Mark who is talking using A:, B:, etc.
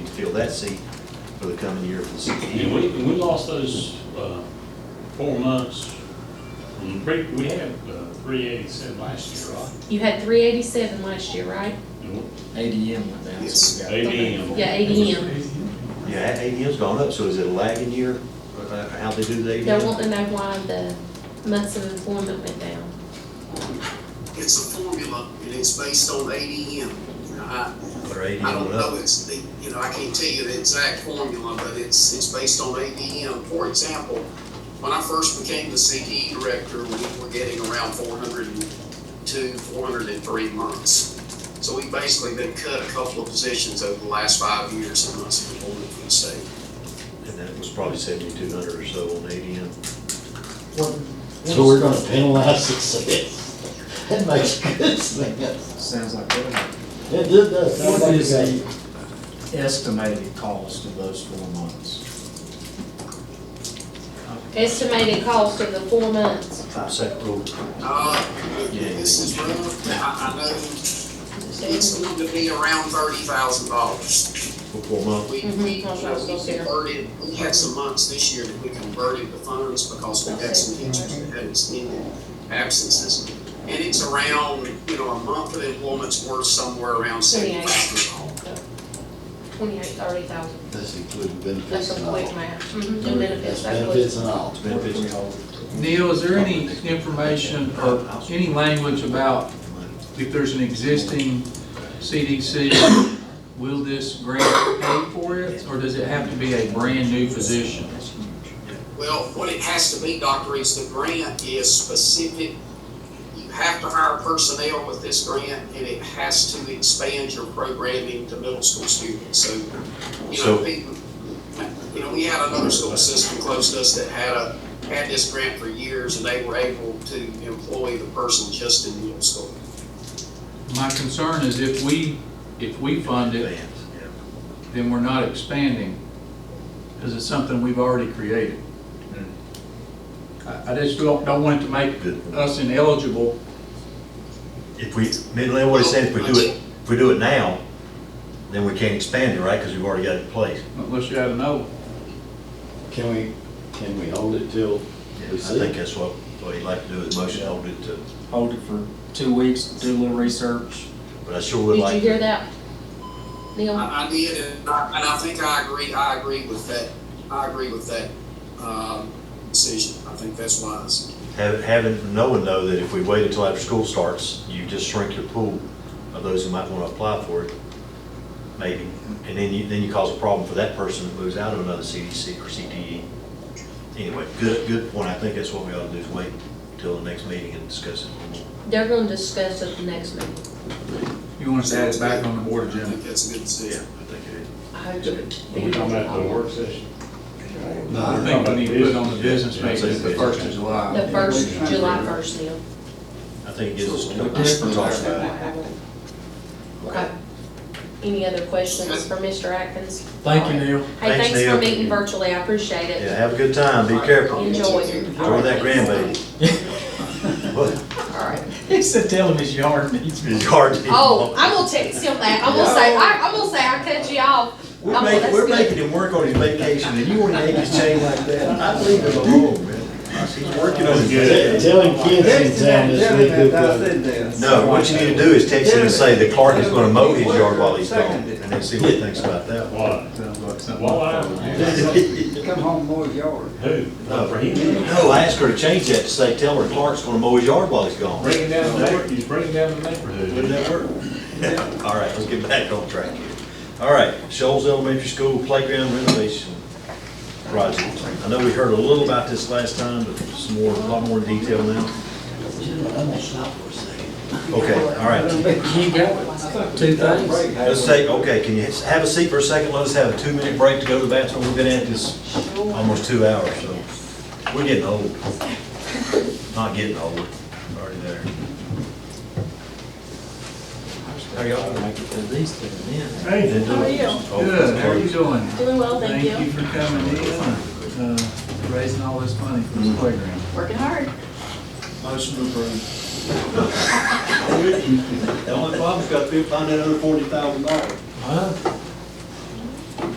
A: fill that seat for the coming year for the
B: And
A: CTE.
B: we, and we lost those, uh, four months from the pre, we had, uh, three eighty-seven last year, right?
C: You had three eighty-seven last year, right?
B: And
D: ADM went down, so we got.
B: ADM.
C: Yeah, ADM.
A: Yeah, ADM's gone up, so is it a lagging year, Uh, how they do the
C: They
A: ADM?
C: want to know why the months of employment went down.
E: It's a formula, and it's based on ADM. You know, I,
A: Or
E: I
A: ADM
E: don't
A: went
E: know,
A: up?
E: it's, the- you know, I can't tell you the exact formula, but it's, it's based on ADM. For example, when I first became the CTE director, we were getting around four hundred and two, four hundred and three months. So we've basically been cut a couple of positions over the last five years in months of employment for the state.
A: And that was probably seventy-two hundred or so on ADM.
D: So we're gonna penalize success. That makes good sense.
F: Sounds like that.
D: It did, does.
F: What is the estimated cost of those four months?
C: Estimated cost of the four months.
A: Second rule.
E: Uh, this is rough, I, I know it's going to be around thirty thousand dollars.
A: for four months.
E: We, we,
C: Mhm.
E: you know, we converted, we had some months this year that we converted the funds because we had some teachers that had extended absences. And it's around, you know, a month of employment's worth somewhere around
C: Twenty-eight.
E: seventy thousand dollars.
C: Twenty-eight, thirty thousand.
G: That's including
C: That's
G: benefits
C: a
G: and all.
C: quick math. Mhm. And
D: That's
C: benefits, that's what-
D: benefits and all.
A: It's been busy.
H: Neil, is there any information or any language about if there's an existing CDC, will this grant pay for it? Or does it have to be a brand-new position?
E: Well, what it has to be, Doctor, is the grant is specific. You have to hire personnel with this grant, and it has to expand your programming to middle school students. So, you
A: So-
E: know, people, you know, we had another school system close to us that had a, had this grant for years, and they were able to employ the person just in middle school.
H: My concern is if we, if we fund it,
A: Advance, yeah.
H: then we're not expanding, because it's something we've already created. I, I just don't, don't want it to make us ineligible.
A: If we, Midland, what it said, if we do it, if we do it now, then we can't expand it, right, because we've already got it in place.
H: Unless you have a no,
D: Can we, can we hold it till
A: Yeah, I
D: we see?
A: think that's what, what he'd like to do, is motion hold it to,
F: Hold it for two weeks, do a little research.
A: but I sure would
C: Did
A: like.
C: you hear that? Neil,
E: I, I did, and I, and I think I agree, I agree with that, I agree with that, um, decision. I think that's wise.
A: Having, having, knowing though that if we wait until after school starts, you just shrink your pool of those who might want to apply for it, maybe. And then you, then you cause a problem for that person that moves out of another CDC or CTE. Anyway, good, good point. I think that's what we ought to do is wait till the next meeting and discuss it a little more.
C: they're gonna discuss it the next meeting.
H: you want us to add it back on the board agenda.
E: I think that's a good decision.
A: I think it is.
C: I hope it-
B: We're talking about the work session.
H: I think we need to put it on the business meeting, as the first of
C: The
H: July.
C: first, July first, Neil.
A: I think it gives us.
D: We're definitely talking
C: Okay. Any other questions for Mr. Atkins?
F: Thank you, Neil.
C: Hey,
A: Thanks,
C: thanks for
A: Neil.
C: meeting virtually, I appreciate
A: Yeah,
C: it.
A: have a good time. Be careful.
C: Enjoy.
A: Enjoy that grandbaby. What?
C: All right.
F: He said, tell him his yard needs.
A: It's hard to.
C: Oh, I'm gonna text him that, I'm gonna say, I, I'm gonna say I cut you off.
A: We're
C: I'm-
A: making,
C: Oh, that's
A: we're
C: good.
A: making him work on his vacation, and you want to make his chain like that? I believe him alone, man. He's working on his
D: Tell
A: vacation.
D: telling kids in town this week, good weather.
A: No, what you need to do is text him and say that Clark is gonna mow his yard while he's gone, and then see what he thinks about that.
B: Why? Why?
F: Come home, mow your yard.
B: Who? Uh,
A: No.
B: For him?
A: No, I asked her to change that to say, tell her Clark's gonna mow his yard while he's gone.
B: Bringing down the neighborhood, he's bringing down the neighborhood.
A: Wouldn't that work? All right, let's get back on track here. All right, Shoals Elementary School Playground Renovation Project. I know we heard a little about this last time, but some more, a lot more detail now.
D: I'm gonna stop for a second.
A: Okay, all right.
D: Two things.
A: Let's take, okay, can you have a seat for a second? Let us have a two-minute break to go to the bathroom. We've been at this almost two hours, so we're getting old. Not getting old, already there. How y'all?
D: These two men.
A: Hey. How are you?
H: Good, how are you doing?
C: Doing well, thank you.
H: for coming in, and, uh, raising all this money for this playground.
I: Working hard.
F: Motion approved.
G: The only problem's gotta be finding another forty thousand dollars.
D: Huh?